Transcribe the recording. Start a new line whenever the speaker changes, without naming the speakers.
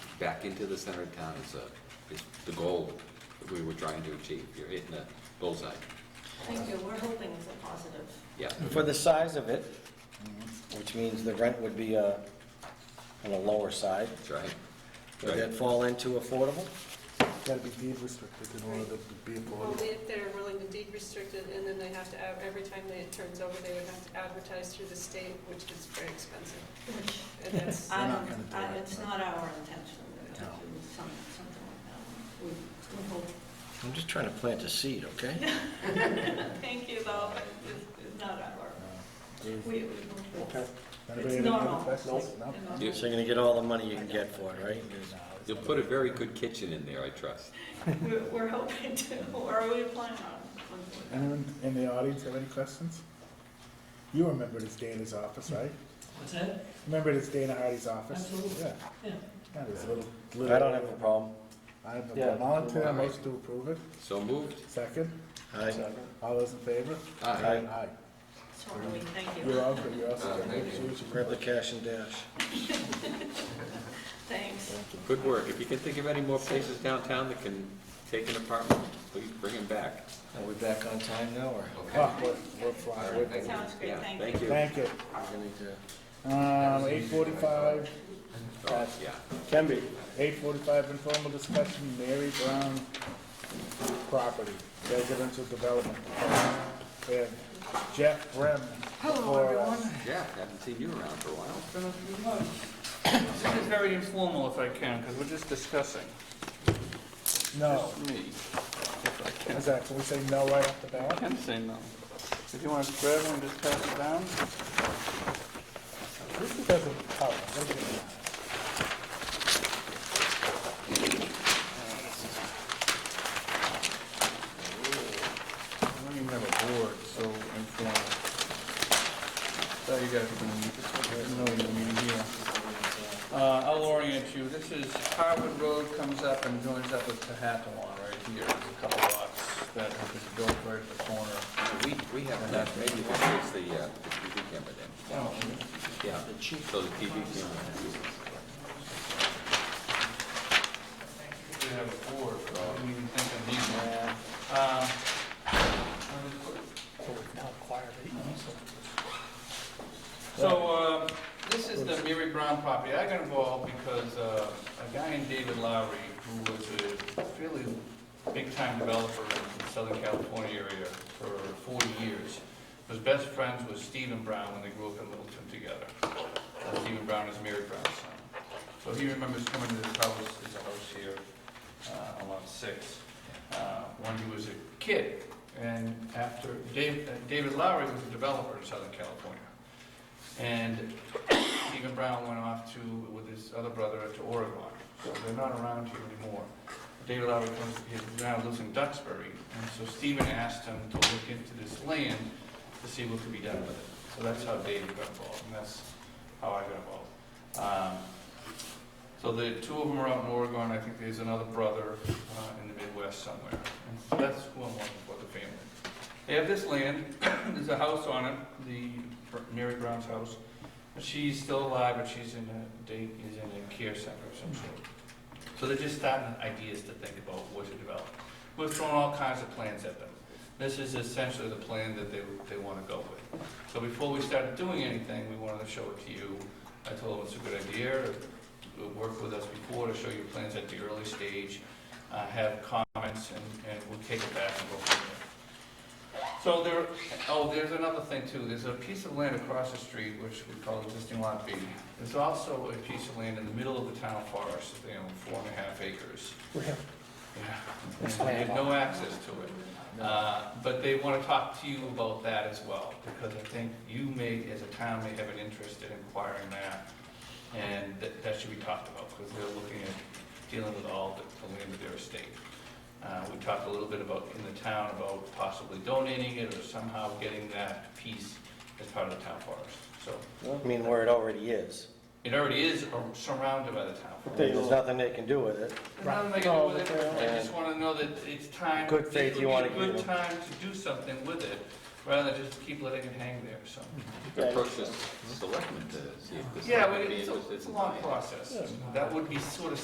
back into the center of town is, a- is the goal that we were trying to achieve. You're hitting the bullseye.
Thank you, we're hoping it's a positive.
Yeah.
For the size of it, which means the rent would be uh, on the lower side,
That's right.
would that fall into affordable?
Gotta be deed restricted in order to be
Well,
affordable.
if they're willing to deed restrict it, and then they have to, ad- every time they- it turns over, they would have to advertise through the state, which is very expensive. And that's,
I
not
don't,
gonna do
I-
it,
it's
but-
not our intention to do
No.
some- something like that. We- we hope-
I'm just trying to plant a seed, okay?
Thank you, though, but it's it's not our, we, we hope
Okay.
it's It's
Anybody have Uh, any
normal.
other questions? No?
normal.
Yes.
So you're gonna get all the money you can get for it, right?
You'll put a very good kitchen in there, I trust.
We're- We're hoping to, or we plan on.
Anyone in the audience have any questions? You remember this Dana's office, right?
What's that?
Remember this Dana Hardy's office?
Absolutely.
Yeah.
Yeah.
Yeah, there's a little.
I don't have a problem.
I'm
Yeah.
a volunteer, I'm supposed to approve it.
So moved? Ah,
Second,
Aye.
all those in favor?
Aye.
Aye.
Sorry, thank you.
You're all good, you're all
Uh,
set.
thank you.
Grab the cash and dash.
Thanks.
Good work. If you can think of any more places downtown that can take an apartment, please bring them back.
Are we back on time now, or?
Oh, we're, we're flying. We're-
Sounds great,
Yeah,
thank you.
Thank you.
Thank you. Um, eight forty-five,
Oh, Yeah.
Can be.
eight forty-five, informal discussion, Mary Brown property, residential development. We have Jeff Brem. uh, Hello, everyone.
Yeah, haven't seen you around for a while.
This is very informal if I can, because we're just discussing.
No,
Me,
is that, can we say no right off the
I
bat?
can say no. If you want to grab one, just pass it down.
This doesn't, oh, what is it?
I don't even have a board, so informal. Thought you guys were going to meet, no, you're meeting here. Uh, I'll orient you. This is Harvard Road comes up and joins up with Tehakawan right here. There's a couple lots that have been built right at the corner.
We, we have that, maybe we'll fix the, uh, the TV camera then. Yeah, so the TV camera.
We have a board, but I didn't even think I need one. Um, So, uh, this is the Mary Brown property. I got involved because uh, a guy named David Lowry, who was a fairly big-time developer in the Southern California area for 40 years, was best friends with Stephen Brown when they grew up in Littleton together. Uh, Stephen Brown is Mary Brown's son. So he remembers coming to this house, this house here, uh, on lot six, uh, when he was a kid. And after, Dave- uh, David Lowry was a developer in Southern California. And Stephen Brown went off to, with his other brother, to Oregon. So they're not around here anymore. David Lowry comes, he now lives in Duxbury. And so Stephen asked him to look into this land to see what could be done with it. So that's how David got involved, and that's how I got involved. Um, so the two of them are out in Oregon, I think there's another brother uh, in the Midwest somewhere. And so that's who I'm looking for, the family. They have this land, there's a house on it, the Br- Mary Brown's house. She's still alive, but she's in a, day is in a care center of some sort. So they're just starting ideas to think about what to develop. We've thrown all kinds of plans at them. This is essentially the plan that they, they want to go with. So before we started doing anything, we wanted to show it to you. I told them it's a good idea, worked with us before to show you plans at the early stage, uh, have comments, and, and we'll take it back and go from there. So there, oh, there's another thing too, there's a piece of land across the street, which we call existing lot B. There's also a piece of land in the middle of the town forest, you know, four and a half acres. Yeah, and they have no access to it. Uh, But they want to talk to you about that as well, because I think you may, as a town, may have an interest in acquiring that. And that, that should be talked about, because they're looking at dealing with all the the land of their estate. Uh, We talked a little bit about, in the town, about possibly donating it or somehow getting that piece as part of the town forest. So
I mean, where it already is.
it already is uh, surrounded by the town forest.
There's nothing they can do with it.
Not that I can do with it, I just wanna know that it's time.
Good faith you wanna
It would be a
give
Good time to do something with it, rather than just keep letting it hang there, so.
Approach the selectmen to see if this.
Yeah,
would
but
be
it's a,
interested
it's a
in
long
buying it.
process, that would be sort of